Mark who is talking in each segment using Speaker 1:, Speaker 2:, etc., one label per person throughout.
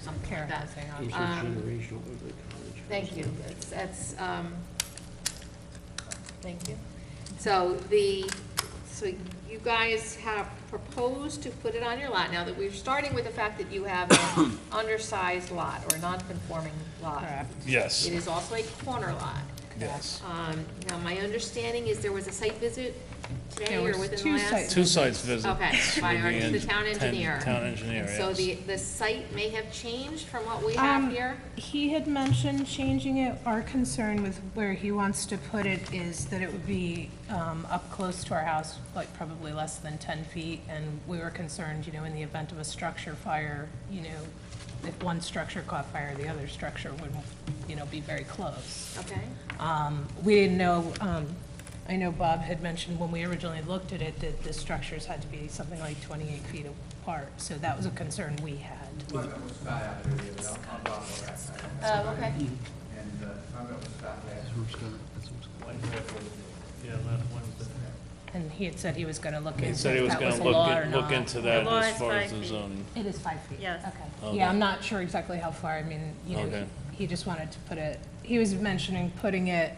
Speaker 1: something like
Speaker 2: Karen
Speaker 1: that.
Speaker 2: has their
Speaker 3: These
Speaker 2: option.
Speaker 3: are
Speaker 1: Um,
Speaker 3: generational ugly college.
Speaker 1: Thank you, that's, that's, um,
Speaker 2: Thank you.
Speaker 1: so the, so you guys have proposed to put it on your lot, now that we're starting with the fact that you have an undersized lot or non-conforming lot.
Speaker 2: Correct.
Speaker 4: Yes,
Speaker 1: It is also a corner lot.
Speaker 4: yes.
Speaker 1: Um, now, my understanding is there was a site visit today
Speaker 2: There
Speaker 1: or
Speaker 2: was
Speaker 1: within the
Speaker 2: two
Speaker 1: last?
Speaker 2: site
Speaker 4: Two sites visit.
Speaker 1: Okay, by our, the town engineer.
Speaker 4: Town engineer,
Speaker 1: And So the,
Speaker 4: yes.
Speaker 1: the site may have changed from what we have
Speaker 2: Um,
Speaker 1: here?
Speaker 2: He had mentioned changing it. Our concern with where he wants to put it is that it would be um, up close to our house, like probably less than 10 feet. And we were concerned, you know, in the event of a structure fire, you know, if one structure caught fire, the other structure would, you know, be very close.
Speaker 1: Okay,
Speaker 2: Um, We didn't know, um, I know Bob had mentioned when we originally looked at it that the structures had to be something like 28 feet apart, so that was a concern we had.
Speaker 5: One of them was Scott out there, the other, I'm Bob Lorrack.
Speaker 1: oh, okay.
Speaker 5: And, uh, one of them was Scott last.
Speaker 2: And he had said he was going to look into
Speaker 4: He
Speaker 2: if
Speaker 4: said he was
Speaker 2: that
Speaker 4: gonna
Speaker 2: a
Speaker 4: look,
Speaker 2: law or
Speaker 4: at- look
Speaker 2: not.
Speaker 4: into that
Speaker 6: law
Speaker 4: as
Speaker 6: is
Speaker 4: far as
Speaker 6: five
Speaker 4: the
Speaker 6: feet.
Speaker 4: zoning.
Speaker 2: It is five feet?
Speaker 6: Yes.
Speaker 2: Okay. Yeah, I'm not sure exactly how far, I mean, you know,
Speaker 4: Okay.
Speaker 2: he- he just wanted to put it, he was mentioning putting it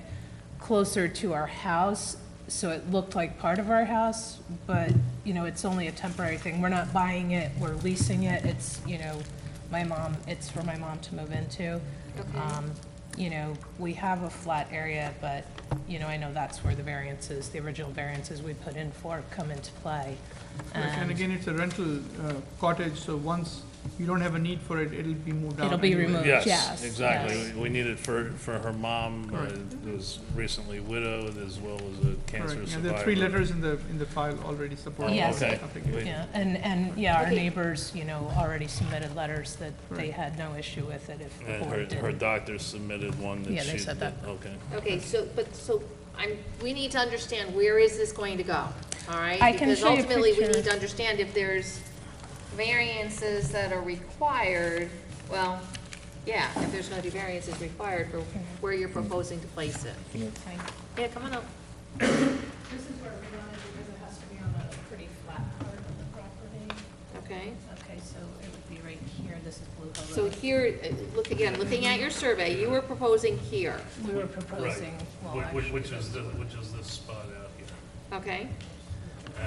Speaker 2: closer to our house, so it looked like part of our house, but, you know, it's only a temporary thing. We're not buying it, we're leasing it, it's, you know, my mom, it's for my mom to move into.
Speaker 1: Okay.
Speaker 2: Um, You know, we have a flat area, but, you know, I know that's where the variances, the original variances we put in for come into play.
Speaker 7: Correct, And
Speaker 2: And-
Speaker 7: again, it's a rental uh, cottage, so once you don't have a need for it, it'll be moved out.
Speaker 2: It'll be
Speaker 7: anyway.
Speaker 2: removed.
Speaker 4: Yes,
Speaker 2: Yes,
Speaker 4: exactly.
Speaker 2: yes.
Speaker 4: We we need it for, for her mom, uh,
Speaker 7: Correct.
Speaker 4: who was recently widowed, as well as a cancer
Speaker 7: Correct,
Speaker 4: survivor.
Speaker 7: and there are three letters in the, in the file already supporting
Speaker 2: Yes.
Speaker 7: this
Speaker 4: Okay.
Speaker 7: application.
Speaker 2: Yeah, and, and, yeah, our
Speaker 1: Okay.
Speaker 2: neighbors, you know, already submitted letters that they
Speaker 7: Right.
Speaker 2: had no issue with it if the
Speaker 4: And her,
Speaker 2: board
Speaker 4: her
Speaker 2: didn't.
Speaker 4: doctor submitted one that she.
Speaker 2: Yeah, they said that.
Speaker 4: Okay.
Speaker 1: Okay, so, but, so, I'm, we need to understand where is this going to go, all right?
Speaker 2: I can show you a
Speaker 1: Because ultimately, we
Speaker 2: picture.
Speaker 1: need to understand if there's variances that are required, well, yeah, if there's gonna be variances required for where you're proposing to place it. Yeah, come on up.
Speaker 2: This is where we wanted, because it has to be on a pretty flat part of the property.
Speaker 1: Okay,
Speaker 2: Okay, so it would be right here, this is Blue Hill
Speaker 1: so
Speaker 2: Road.
Speaker 1: here, uh, look again, looking at your survey, you were proposing here,
Speaker 2: We were proposing, well,
Speaker 4: Right, which,
Speaker 2: actually,
Speaker 4: which is, the- which is this spot out here.
Speaker 1: okay?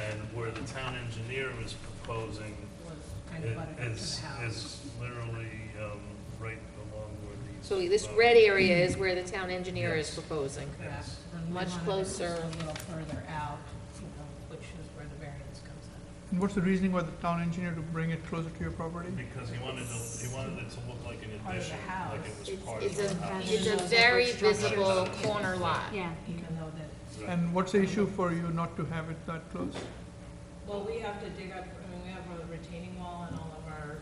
Speaker 4: And where the town engineer is proposing
Speaker 2: was kind of butted up to
Speaker 4: is,
Speaker 2: the house.
Speaker 4: is literally, um, right along where these.
Speaker 1: So this
Speaker 4: uh,
Speaker 1: red area is where the town engineer is
Speaker 4: Yes.
Speaker 1: proposing.
Speaker 2: Correct. And we
Speaker 1: Much
Speaker 2: wanted it
Speaker 1: closer.
Speaker 2: just A little further out, you know, which is where the variance comes in.
Speaker 7: And What's the reasoning by the town engineer to bring it closer to your property?
Speaker 4: Because he wanted to, he wanted it to look like an
Speaker 2: Part of the
Speaker 4: addition, like it was
Speaker 1: It's,
Speaker 4: part of
Speaker 1: it's
Speaker 4: the
Speaker 1: a,
Speaker 4: house.
Speaker 1: it's a very visible corner lot.
Speaker 6: Yeah.
Speaker 2: Even though that,
Speaker 7: And what's the issue for you not to have it that close?
Speaker 2: well, we have to dig up, I mean, we have a retaining wall and all of our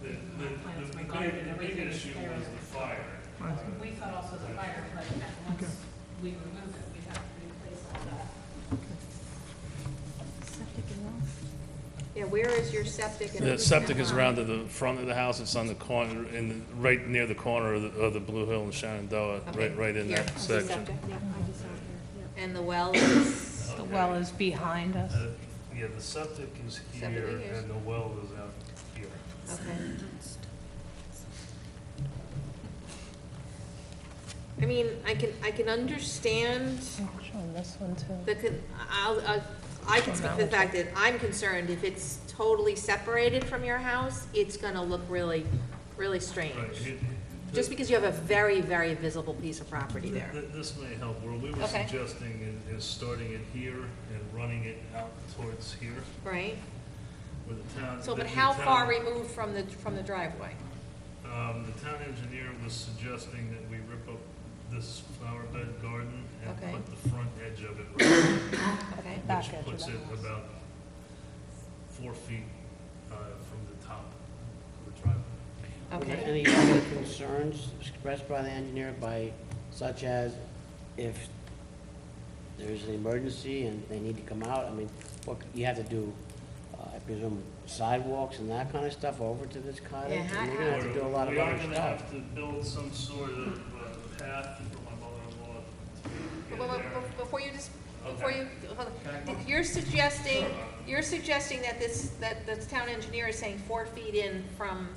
Speaker 4: The, the,
Speaker 2: Plans, my
Speaker 4: the
Speaker 2: garden,
Speaker 4: big, the big
Speaker 2: everything is
Speaker 4: issue
Speaker 2: there.
Speaker 4: was the fire.
Speaker 7: Right.
Speaker 2: We thought also the fire, but once we remove it, we have to replace all that.
Speaker 1: Yeah, where is your septic? and
Speaker 4: The
Speaker 1: who's
Speaker 4: septic is
Speaker 1: in-law?
Speaker 4: around to the front of the house, it's on the corner, in, the- right near the corner of the, of the Blue Hill and Shenandoah,
Speaker 1: Okay,
Speaker 4: right, right in
Speaker 1: here,
Speaker 4: that
Speaker 1: this is
Speaker 4: section.
Speaker 1: septic. And the well is,
Speaker 2: The well is behind us.
Speaker 4: Uh, Yeah, the septic is
Speaker 1: Septic
Speaker 4: here
Speaker 1: is-
Speaker 4: and the well is out here.
Speaker 1: okay. I mean, I can, I can understand
Speaker 2: Showing this one too.
Speaker 1: the, con- I'll, I'll- I can speak to the fact that I'm concerned if it's totally separated from your house, it's gonna look really, really
Speaker 4: Right,
Speaker 1: strange.
Speaker 4: it-
Speaker 1: Just because you have a very, very visible piece of property
Speaker 4: th-
Speaker 1: there.
Speaker 4: th- This may help, where we were
Speaker 1: Okay.
Speaker 4: suggesting is, is starting it here and running it out towards here,
Speaker 1: Right?
Speaker 4: where the town.
Speaker 1: So,
Speaker 4: Mm-hmm. the-
Speaker 1: but
Speaker 4: the
Speaker 1: how
Speaker 4: town-
Speaker 1: far removed from the, from the driveway?
Speaker 4: Um, the town engineer was suggesting that we rip up this flower bed garden and
Speaker 1: Okay.
Speaker 4: put the front edge of it, right
Speaker 1: Okay,
Speaker 4: there,
Speaker 2: Back
Speaker 4: which
Speaker 2: edge of
Speaker 4: puts
Speaker 2: the
Speaker 4: it
Speaker 2: house.
Speaker 4: about four feet, uh, from the top of the driveway.
Speaker 3: Were there
Speaker 1: okay.
Speaker 3: any other concerns expressed by the engineer by, such as if there's an emergency and they need to come out? I mean, what, you have to do, uh, I presume sidewalks and that kind of stuff over to this cottage?
Speaker 1: Yeah,
Speaker 3: And You're gonna have to do a lot of
Speaker 4: We are
Speaker 3: other
Speaker 4: gonna
Speaker 3: stuff.
Speaker 4: have to build some sort of uh, path for my mother-in-law to
Speaker 1: But-
Speaker 4: get
Speaker 1: but-
Speaker 4: there.
Speaker 1: but Before you just, before
Speaker 4: Okay.
Speaker 1: you, hold on. you're suggesting, you're suggesting that this, that the town engineer is saying four feet in from